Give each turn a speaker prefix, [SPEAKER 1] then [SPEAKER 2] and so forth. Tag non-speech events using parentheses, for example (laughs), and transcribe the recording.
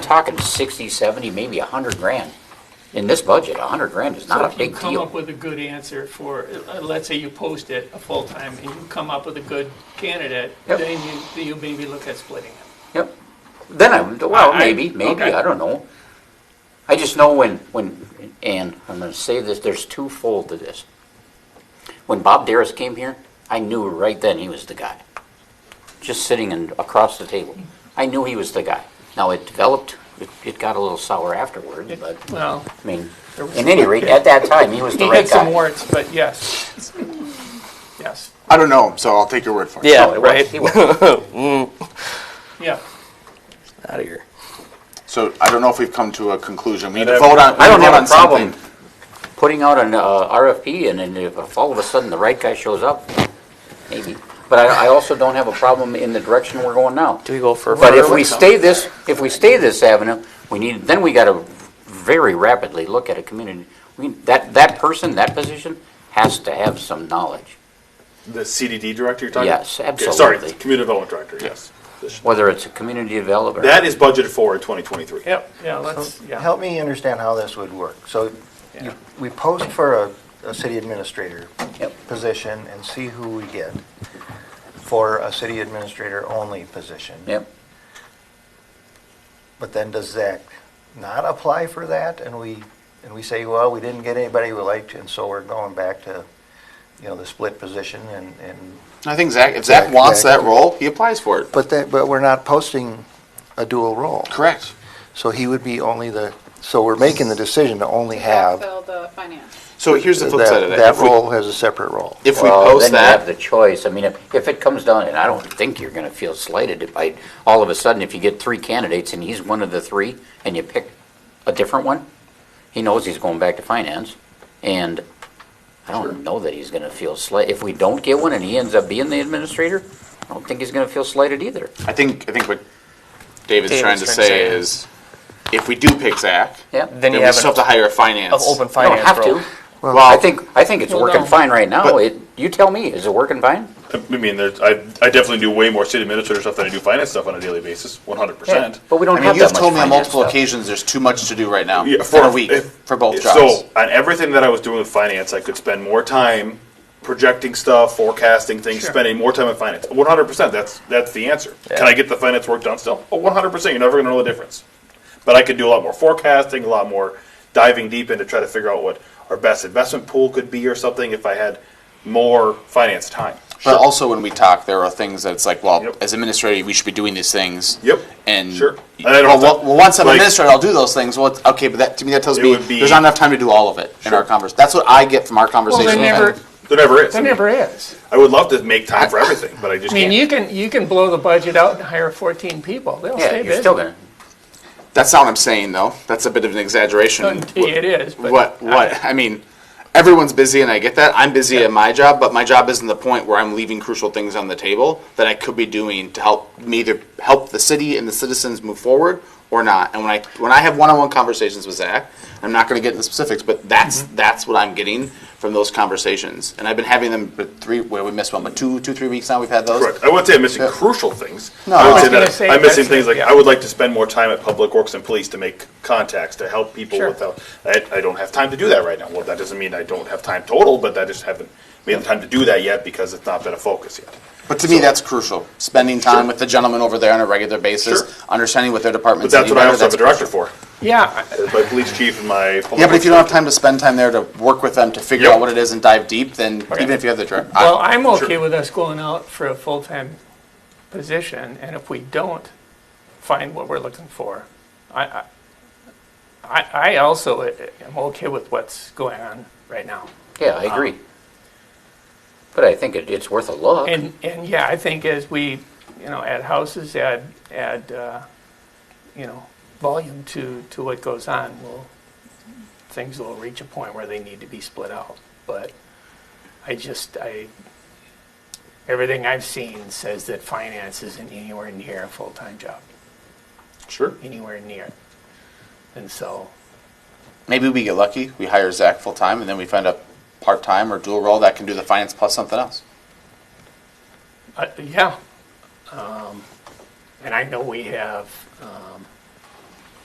[SPEAKER 1] talking 60, 70, maybe 100 grand. In this budget, 100 grand is
[SPEAKER 2] So
[SPEAKER 1] not
[SPEAKER 2] if
[SPEAKER 1] a big
[SPEAKER 2] you come up
[SPEAKER 1] deal.
[SPEAKER 2] with a good answer for, uh, let's say you post it a full-time, and you come up with a good candidate,
[SPEAKER 1] Yep.
[SPEAKER 2] then you, then you maybe look at splitting it.
[SPEAKER 1] Yep. Then I, would- well,
[SPEAKER 2] I- I-
[SPEAKER 1] maybe, maybe,
[SPEAKER 2] okay.
[SPEAKER 1] I don't know. I just know when, when, and I'm gonna say this, there's twofold to this. When Bob Darris came here, I knew right then he was the guy. Just sitting and across the table. I knew he was the guy. Now, it developed, it, it got a little sour afterward, but,
[SPEAKER 2] Well,
[SPEAKER 1] I mean,
[SPEAKER 2] There was-
[SPEAKER 1] at any rate, at that time, he was the
[SPEAKER 2] (laughs) he
[SPEAKER 1] right
[SPEAKER 2] had some
[SPEAKER 1] guy.
[SPEAKER 2] warts, but yes. Yes,
[SPEAKER 3] I don't know him, so I'll take your word for it.
[SPEAKER 1] No,
[SPEAKER 4] Yeah,
[SPEAKER 1] it was-
[SPEAKER 4] right.
[SPEAKER 1] he was.
[SPEAKER 2] yeah.
[SPEAKER 4] Out of here.
[SPEAKER 3] So I don't know if we've come to a conclusion. We need to
[SPEAKER 5] I'd
[SPEAKER 3] vote on.
[SPEAKER 1] I don't
[SPEAKER 3] we need to
[SPEAKER 1] have
[SPEAKER 3] vote
[SPEAKER 1] a
[SPEAKER 3] on
[SPEAKER 1] problem
[SPEAKER 3] something.
[SPEAKER 1] putting out an uh, RFP, and then if if all of a sudden the right guy shows up, maybe. But I, I also don't have a problem in the direction we're going now.
[SPEAKER 4] Do we go for?
[SPEAKER 1] But if
[SPEAKER 4] further?
[SPEAKER 1] we stay this, if we stay this avenue, we need, then we gotta very rapidly look at a community. We, that, that person, that position has to have some knowledge,
[SPEAKER 5] The CDD director you're talking?
[SPEAKER 1] Yes,
[SPEAKER 5] Okay, Sorry,
[SPEAKER 1] absolutely.
[SPEAKER 5] community development director, yes.
[SPEAKER 1] whether it's a community developer.
[SPEAKER 5] That is budgeted for in 2023.
[SPEAKER 2] Yep, yeah, let's, yeah.
[SPEAKER 6] Help me understand how this would work. So you- we post for a, a city administrator
[SPEAKER 1] Yep.
[SPEAKER 6] position and see who we get for a city administrator only position.
[SPEAKER 1] Yep,
[SPEAKER 6] But then does Zach not apply for that and we, and we say, well, we didn't get anybody we liked and so we're going back to, you know, the split position and, and,
[SPEAKER 3] I think Zach, if Zach
[SPEAKER 6] Zach-
[SPEAKER 3] wants
[SPEAKER 6] Zach-
[SPEAKER 3] that role, he applies for it.
[SPEAKER 6] but that, but we're not posting a dual role.
[SPEAKER 3] Correct.
[SPEAKER 6] So he would be only the, so we're making the decision to only have
[SPEAKER 7] Backfill the finance.
[SPEAKER 3] So here's the
[SPEAKER 6] that,
[SPEAKER 3] flip side of that.
[SPEAKER 6] that
[SPEAKER 3] If we-
[SPEAKER 6] role as a separate role.
[SPEAKER 3] If we
[SPEAKER 1] well, then
[SPEAKER 3] post
[SPEAKER 1] you have
[SPEAKER 3] that,
[SPEAKER 1] the choice, I mean, if, if it comes down, and I don't think you're gonna feel slighted if I, all of a sudden, if you get three candidates and he's one of the three, and you pick a different one, he knows he's going back to finance, and I don't know that he's gonna feel slight, if we don't get one and he ends up being the administrator, I don't think he's gonna feel slighted either.
[SPEAKER 3] I think, I think what David's
[SPEAKER 4] David's
[SPEAKER 3] trying to
[SPEAKER 4] trying to
[SPEAKER 3] say
[SPEAKER 4] say-
[SPEAKER 3] is, if we do pick Zach,
[SPEAKER 1] Yeah.
[SPEAKER 4] Then
[SPEAKER 3] then
[SPEAKER 4] you
[SPEAKER 3] we
[SPEAKER 4] have
[SPEAKER 3] still have
[SPEAKER 4] an
[SPEAKER 3] to hire a finance.
[SPEAKER 4] of open
[SPEAKER 1] You don't
[SPEAKER 4] finance
[SPEAKER 1] have
[SPEAKER 4] role.
[SPEAKER 1] to. Well, I think, I think it's working fine right now,
[SPEAKER 5] But-
[SPEAKER 1] it, you tell me, is it working fine?
[SPEAKER 5] I mean, there's, I, I definitely do way more city administrator stuff than I do finance stuff on a daily basis, 100%.
[SPEAKER 1] But we
[SPEAKER 3] I
[SPEAKER 1] don't
[SPEAKER 3] mean,
[SPEAKER 1] have
[SPEAKER 3] you've
[SPEAKER 1] that much
[SPEAKER 3] told me on
[SPEAKER 1] finance
[SPEAKER 3] multiple
[SPEAKER 1] stuff.
[SPEAKER 3] occasions, there's too much to do right now,
[SPEAKER 5] Yeah,
[SPEAKER 3] for a week,
[SPEAKER 5] if-
[SPEAKER 3] for both jobs.
[SPEAKER 5] So on everything that I was doing with finance, I could spend more time projecting stuff, forecasting things,
[SPEAKER 2] Sure.
[SPEAKER 5] spending more time in finance. One hundred percent. That's that's the answer. Can I get the finance work done still? Oh, One hundred percent. You're never going to know the difference. But I could do a lot more forecasting, a lot more diving deep into try to figure out what our best investment pool could be or something if I had more finance time.
[SPEAKER 3] But also when we talk, there are things that's like, well,
[SPEAKER 5] Yep.
[SPEAKER 3] as administrator, we should be doing these things.
[SPEAKER 5] Yep.
[SPEAKER 3] And.
[SPEAKER 5] Sure. And I
[SPEAKER 3] Well,
[SPEAKER 5] don't have to-
[SPEAKER 3] well, well, once I'm
[SPEAKER 5] like-
[SPEAKER 3] administrator, I'll do those things. Well, it's- okay, but that, to me, that tells
[SPEAKER 5] It
[SPEAKER 3] me,
[SPEAKER 5] would be-
[SPEAKER 3] there's not enough time to do all of it in
[SPEAKER 5] Sure.
[SPEAKER 3] our convers, that's what I get from our
[SPEAKER 2] Well,
[SPEAKER 3] conversation.
[SPEAKER 2] there never,
[SPEAKER 5] There never is.
[SPEAKER 2] there never is.
[SPEAKER 5] I would love to make time for everything, but I just
[SPEAKER 2] I mean,
[SPEAKER 5] can't.
[SPEAKER 2] you can, you can blow the budget out and hire 14 people, they'll
[SPEAKER 1] Yeah,
[SPEAKER 2] stay
[SPEAKER 1] you're
[SPEAKER 2] busy.
[SPEAKER 1] still gonna,
[SPEAKER 3] That's not what I'm saying, though. That's a bit of an exaggeration.
[SPEAKER 2] It is, but.
[SPEAKER 3] What, what, I mean, everyone's busy and I get that. I'm busy at my job, but my job isn't the point where I'm leaving crucial things on the table that I could be doing to help me either help the city and the citizens move forward or not. And when I, when I have one-on-one conversations with Zach, I'm not gonna get into specifics, but that's,
[SPEAKER 5] Mm-hmm.
[SPEAKER 3] that's what I'm getting from those conversations. And I've been having them for three, well, we missed one, but two, two, three weeks now we've had those.
[SPEAKER 5] Correct. I wouldn't say I'm missing crucial things.
[SPEAKER 3] No.
[SPEAKER 5] I
[SPEAKER 3] I was
[SPEAKER 5] would say
[SPEAKER 2] gonna
[SPEAKER 5] that
[SPEAKER 2] say
[SPEAKER 5] I'm missing
[SPEAKER 2] that's-
[SPEAKER 5] things like,
[SPEAKER 2] yeah.
[SPEAKER 5] I would like to spend more time at Public Works and Police to make contacts, to help people
[SPEAKER 2] Sure.
[SPEAKER 5] without, I, I don't have time to do that right now. Well, that doesn't mean I don't have time total, but I just haven't made the time to do that yet because it's not been a focus yet.
[SPEAKER 3] But to me, that's crucial. Spending time with the gentleman over there on a regular basis,
[SPEAKER 5] Sure.
[SPEAKER 3] understanding what their department.
[SPEAKER 5] But that's what I also have a director for,
[SPEAKER 2] Yeah,
[SPEAKER 5] my police chief and my.
[SPEAKER 3] Yeah, but if you don't have time to spend time there to work with them to figure
[SPEAKER 5] Yep.
[SPEAKER 3] out what it is and dive deep, then even if you have the uh, director,
[SPEAKER 2] Well, I'm okay
[SPEAKER 5] Sure.
[SPEAKER 2] with us going out for a full-time position, and if we don't find what we're looking for, I, I- I, I also eh, am okay with what's going on right now.
[SPEAKER 1] yeah, I agree. But I think it, it's worth a look.
[SPEAKER 2] And, and yeah, I think as we, you know, add houses, add, add, uh, you know, volume to, to what goes on, will, things will reach a point where they need to be split out. But I just, I, everything I've seen says that finance isn't anywhere near a full-time job,
[SPEAKER 5] Sure.
[SPEAKER 2] anywhere near. And so,
[SPEAKER 3] maybe we get lucky. We hire Zach full time, and then we find a part time or dual role that can do the finance plus something else.
[SPEAKER 2] Uh, Yeah. Um, And I know we have um,